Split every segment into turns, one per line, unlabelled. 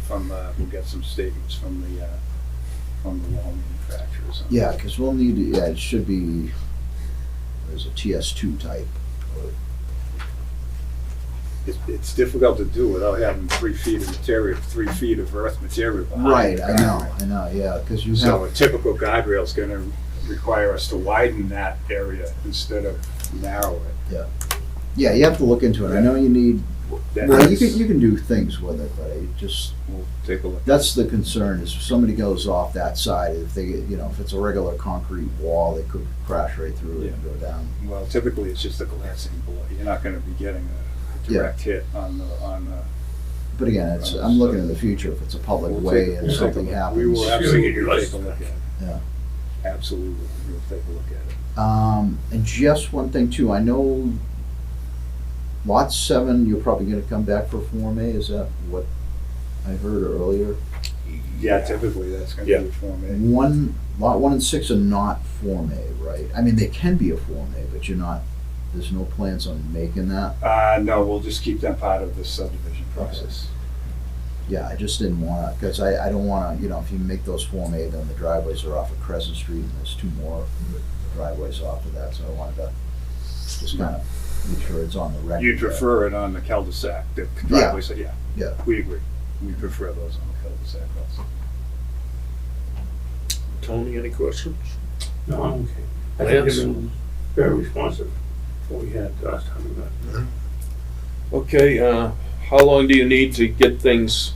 from, uh, we'll get some statements from the, uh, from the wall manufacturers. on
Yeah, because we'll need, yeah, it should be, there's a TS2 type.
It's, it's difficult to do without having three feet of material, three feet of earth material behind. the
Right, I know,
guardrail.
I know, yeah, because you
So
have,
a typical guardrail is gonna require us to widen that area instead of narrow it.
yeah, you have to look into it. I know you need,
That
well, you
is-
can, you can do things with it, but I just,
We'll take a look.
that's the concern, is if somebody goes off that side, if they, you know, if it's a regular concrete wall, they could crash right through it and go down.
Well, typically, it's just a glancing blow. You're not gonna be getting a
Yeah.
direct hit on the, on the
But again, it's, I'm looking in the future, if it's a public
We'll
way
take- we'll
and
take a
something
look.
happens.
We will absolutely
Shooting your
take a
license.
look at it.
Yeah.
Absolutely, we'll take a look at it.
Um, and just one thing too, I know lot seven, you're probably gonna come back for Form A, is that what I heard earlier?
Yeah, typically, that's gonna be
Yeah.
a Form
And one, lot one and six are not Form A, right? I mean, they can be a Form A, but you're not, there's no plans on making that.
A. Uh, no, we'll just keep them part of the subdivision process.
Yeah, I just didn't wanna, cause I, I don't wanna, you know, if you make those Form A, then the driveways are off of Crescent Street and there's two more driveways off of that, so I wanted to just kinda make sure it's on the record.
You'd prefer it on the cul-de-sac, the driveway, so, yeah.
Yeah.
We agree. We prefer those on the cul-de-sac also.
Tony, any questions?
No, I'm okay. I think
Lance?
they've been very responsive, what we had last time we met.
Okay, uh, how long do you need to get things?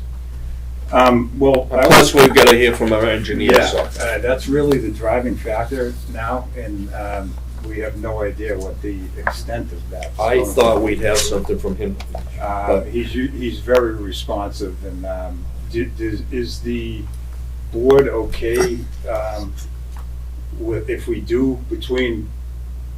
Um, well. I
Plus,
was-
we've gotta hear from our engineer,
Yeah,
so.
uh, that's really the driving factor now, and, um, we have no idea what the extent of that. is
I
going to
thought
be.
we'd have something from him.
Uh,
But-
he's, u- he's very responsive and, um, do- does- is the board okay, um, with, if we do between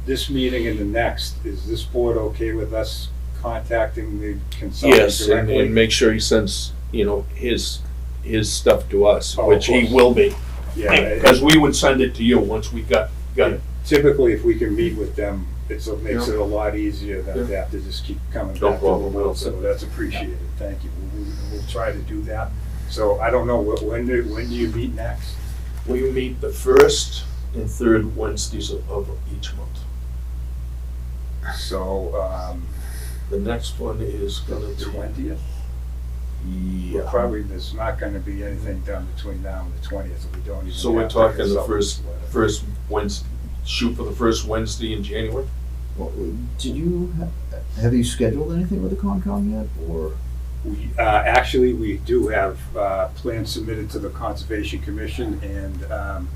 this meeting and the next, is this board okay with us contacting the consultant
Yes, and, and
directly?
make sure he sends, you know, his, his stuff to us,
Oh, of
which he
course.
will be.
Yeah,
Because we would send it to you once we got, got it.
typically if we can meet with them, it's, it makes
Yeah.
it a lot easier than to
Yeah.
have to just keep coming
No
back to the
problem,
well,
we'll-
so that's appreciated, thank you. We'll, we'll try to do that. So I don't know, wh- when, do- when do you meet next?
We meet the first and third Wednesdays of, of each month.
So, um,
The next one is gonna
the
be.
twentieth?
Yeah.
Probably there's not gonna be anything done between now and the twentieth, we don't even.
So we're
have to
talking the
consult
first-
with the-
First Wednesday, shoot for the first Wednesday in January?
Well, Did you, ha- have you scheduled anything with the Concom yet, or?
We, uh, actually, we do have, uh, plans submitted to the Conservation Commission and, um,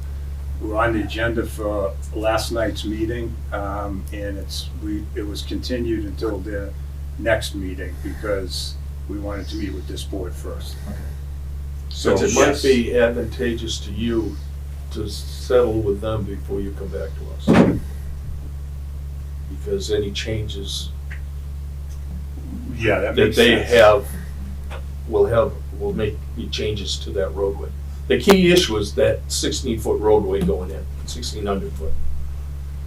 we're on the agenda for last night's meeting, um, and it's, we, it was continued until the next meeting because we wanted to meet with this board first. So,
Since it might
yes.
be advantageous to you to settle with them before you come back to us. Because any changes
Yeah, that
that
makes
they
sense.
have will have, will make the changes to that roadway. The key issue is that sixteen foot roadway going in, sixteen hundred foot.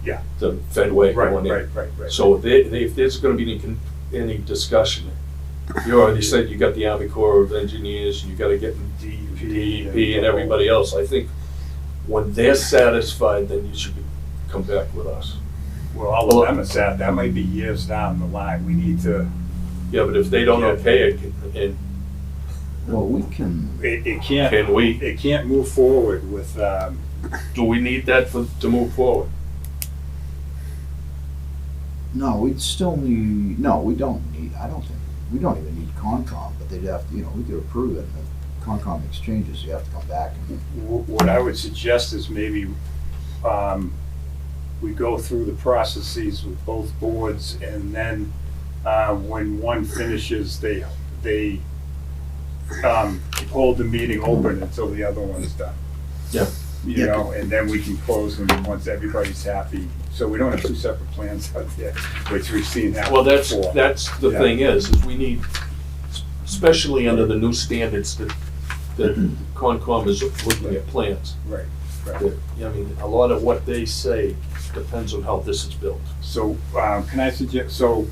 Yeah.
The Fedway
Right,
going in.
right, right, right.
So if they, they, if there's gonna be any, con- any discussion, you already said you got the Army Corps of Engineers, and you gotta get
DEP.
DEP and everybody else, I think when they're satisfied, then you should be- come back with us.
Well, all of them is that, that might be years down the line, we need to,
Yeah, but if they don't
Yeah.
okay it, can- and
Well, we can,
it, it can't,
can we,
it can't move forward with, um,
do we need that for, to move forward?
no, we'd still need, no, we don't need, I don't think, we don't even need Concom, but they'd have, to you know, we could approve it, and if Concom exchanges, you have to come back. and-
wh- what I would suggest is maybe, um, we go through the processes with both boards and then, uh, when one finishes, they, they, um, hold the meeting open until the other one's done.
Yeah.
You know, and then we can close them once everybody's happy, so we don't have two separate plans out there, which we've seen that
Well, that's,
before.
that's the
Yeah.
thing is, is we need, especially under the new standards that, that Concom is looking at plans.
Right, right.
that- I mean, a lot of what they say depends on how this is built.
So, um, can I suggest, so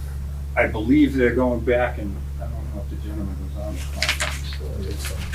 I believe they're going back and, I don't know if the gentleman was on the conference. so it's-